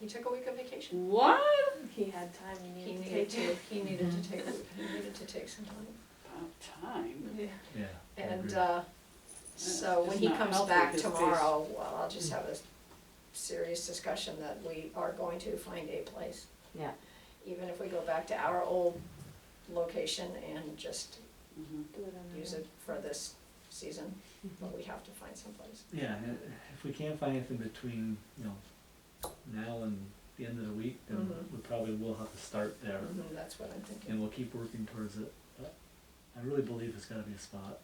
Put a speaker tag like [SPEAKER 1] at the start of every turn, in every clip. [SPEAKER 1] He took a week of vacation.
[SPEAKER 2] What?
[SPEAKER 3] He had time,
[SPEAKER 1] He
[SPEAKER 3] he needed to
[SPEAKER 1] needed
[SPEAKER 3] take
[SPEAKER 1] to,
[SPEAKER 3] it.
[SPEAKER 1] he needed to take, he needed to take some time.
[SPEAKER 2] About time.
[SPEAKER 3] Yeah.
[SPEAKER 4] Yeah. I
[SPEAKER 1] And,
[SPEAKER 4] agree.
[SPEAKER 1] uh, so
[SPEAKER 2] It's
[SPEAKER 1] when he
[SPEAKER 2] not
[SPEAKER 1] comes
[SPEAKER 2] healthy,
[SPEAKER 1] back
[SPEAKER 2] his face.
[SPEAKER 1] tomorrow, well, I'll just have a serious discussion that we are going to find a place.
[SPEAKER 5] Yeah.
[SPEAKER 1] Even if we go back to our old location and just
[SPEAKER 2] Mhm.
[SPEAKER 3] Do it on
[SPEAKER 1] use
[SPEAKER 3] the-
[SPEAKER 1] it for this season, but we have to find someplace.
[SPEAKER 4] Yeah, i- if we can't find anything between, you know, now and the end of the week, then
[SPEAKER 1] Mhm.
[SPEAKER 4] we probably will have to start there.
[SPEAKER 1] Mhm, That's what I'm thinking.
[SPEAKER 4] And we'll keep working towards it. But I really believe it's gotta be a spot.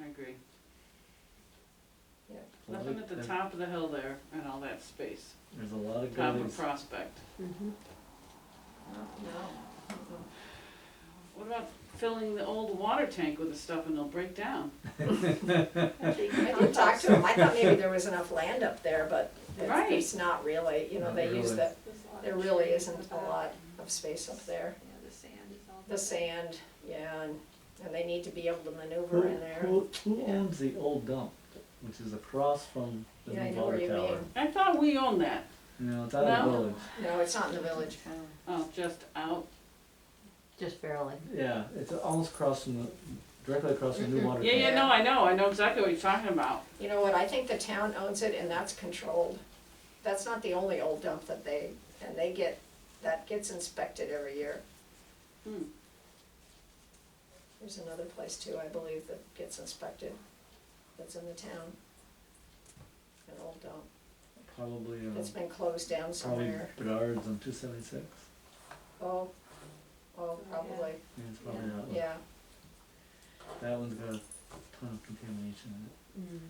[SPEAKER 2] I agree.
[SPEAKER 1] Yeah.
[SPEAKER 4] Well,
[SPEAKER 2] Nothing at the
[SPEAKER 4] there-
[SPEAKER 2] top of the hill there and all that space.
[SPEAKER 4] There's a lot of
[SPEAKER 2] Top
[SPEAKER 4] goalies.
[SPEAKER 2] of Prospect.
[SPEAKER 3] Mm-hmm.
[SPEAKER 5] Mhm.
[SPEAKER 1] No, no. mm-mm.
[SPEAKER 2] What about filling the old water tank with the stuff and they'll break down?
[SPEAKER 1] I didn't talk to him, I thought maybe there was enough land up there, but
[SPEAKER 2] Right.
[SPEAKER 1] it's, it's not really, you know,
[SPEAKER 4] Not
[SPEAKER 1] they use the,
[SPEAKER 4] really.
[SPEAKER 3] There's a lot
[SPEAKER 1] there
[SPEAKER 3] of
[SPEAKER 1] really
[SPEAKER 3] trees
[SPEAKER 1] isn't a
[SPEAKER 3] about-
[SPEAKER 1] lot of space up there.
[SPEAKER 3] Yeah, the sand is all.
[SPEAKER 1] The
[SPEAKER 3] that-
[SPEAKER 1] sand, yeah, and, and they need to be able to
[SPEAKER 4] Who,
[SPEAKER 1] maneuver in there.
[SPEAKER 4] who, who owns the old dump, which is across from the
[SPEAKER 1] Yeah, I
[SPEAKER 4] new
[SPEAKER 1] know where
[SPEAKER 4] water
[SPEAKER 1] you
[SPEAKER 4] tower?
[SPEAKER 1] mean.
[SPEAKER 2] I thought we owned that.
[SPEAKER 4] No, it's out of the
[SPEAKER 2] No.
[SPEAKER 4] village.
[SPEAKER 1] No, it's not in the village.
[SPEAKER 2] Oh, just out.
[SPEAKER 5] Just barely.
[SPEAKER 4] Yeah, it's almost across from the, directly across from the
[SPEAKER 1] Mm-hmm.
[SPEAKER 4] new water tower.
[SPEAKER 2] Yeah, yeah, no, I know. I know exactly what you're talking about.
[SPEAKER 1] You know what, I think the town owns it and that's controlled. That's not the only old dump that they, and they get, that gets inspected every year.
[SPEAKER 2] Hmm.
[SPEAKER 1] There's another place too, I believe, that gets inspected, that's in the town. An old dump,
[SPEAKER 4] Probably, uh,
[SPEAKER 1] that's been closed down
[SPEAKER 4] probably
[SPEAKER 1] somewhere.
[SPEAKER 4] Bedard's on two seventy-six.
[SPEAKER 1] Oh, oh,
[SPEAKER 3] yeah.
[SPEAKER 1] probably,
[SPEAKER 4] Yeah, it's probably
[SPEAKER 3] Yeah.
[SPEAKER 4] that one.
[SPEAKER 1] yeah.
[SPEAKER 4] That one's got a ton of contamination in it.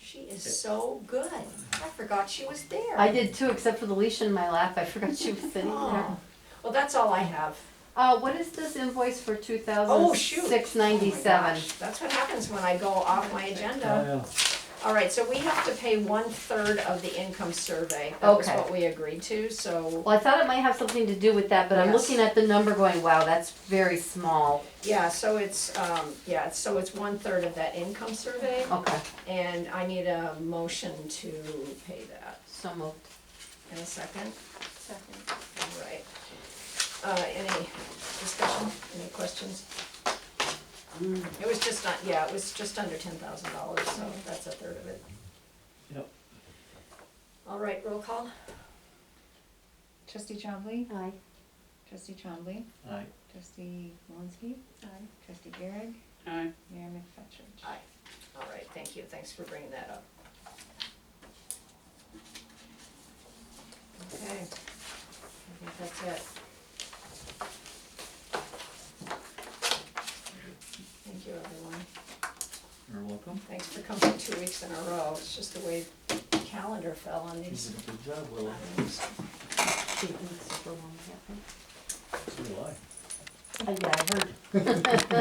[SPEAKER 1] She is so good, I forgot she was there.
[SPEAKER 5] I did too, except for the leash in my lap. I forgot she was sitting there.
[SPEAKER 1] Oh, well, that's all I have.
[SPEAKER 5] Uh, what is this invoice for two
[SPEAKER 1] Oh,
[SPEAKER 5] thousand
[SPEAKER 1] shoot.
[SPEAKER 5] six
[SPEAKER 1] Oh my
[SPEAKER 5] ninety-seven?
[SPEAKER 1] gosh, That's what happens when I go off my
[SPEAKER 4] Oh,
[SPEAKER 1] agenda.
[SPEAKER 4] yeah.
[SPEAKER 1] All right, so we have to pay one-third of the income survey. That was
[SPEAKER 5] Okay.
[SPEAKER 1] what we agreed to, so,
[SPEAKER 5] Well, I thought it might have something to do with that, but I'm
[SPEAKER 1] Yes.
[SPEAKER 5] looking at the number going, wow, that's very small.
[SPEAKER 1] yeah, so it's, um, yeah, it's- so it's one-third of that income survey,
[SPEAKER 5] Okay,
[SPEAKER 1] and I need a motion to pay that.
[SPEAKER 5] so moved.
[SPEAKER 1] In a second,
[SPEAKER 3] Second.
[SPEAKER 1] all right. Uh, any discussion, any questions?
[SPEAKER 2] Mm.
[SPEAKER 1] It was just, not- yeah, it was just under ten thousand dollars, so that's a third of it.
[SPEAKER 4] Yep.
[SPEAKER 1] All right, roll call?
[SPEAKER 6] Trustee Chombley,
[SPEAKER 5] Aye.
[SPEAKER 6] trustee Chombley,
[SPEAKER 4] Aye.
[SPEAKER 6] trustee Malinsky. Aye. Trustee Garrig,
[SPEAKER 2] Aye.
[SPEAKER 6] Mayor McFetrich.
[SPEAKER 1] Aye. All right, thank you, thanks for bringing that up. Okay, I think that's it. Thank you, everyone.
[SPEAKER 4] You're welcome.
[SPEAKER 1] Thanks for coming two weeks in a row, it's just the way the calendar fell on
[SPEAKER 4] You
[SPEAKER 1] these
[SPEAKER 4] did a good job, Willow.
[SPEAKER 1] items.
[SPEAKER 5] She didn't sit for long, yeah.
[SPEAKER 4] So do I.
[SPEAKER 5] Uh, Yeah, I heard.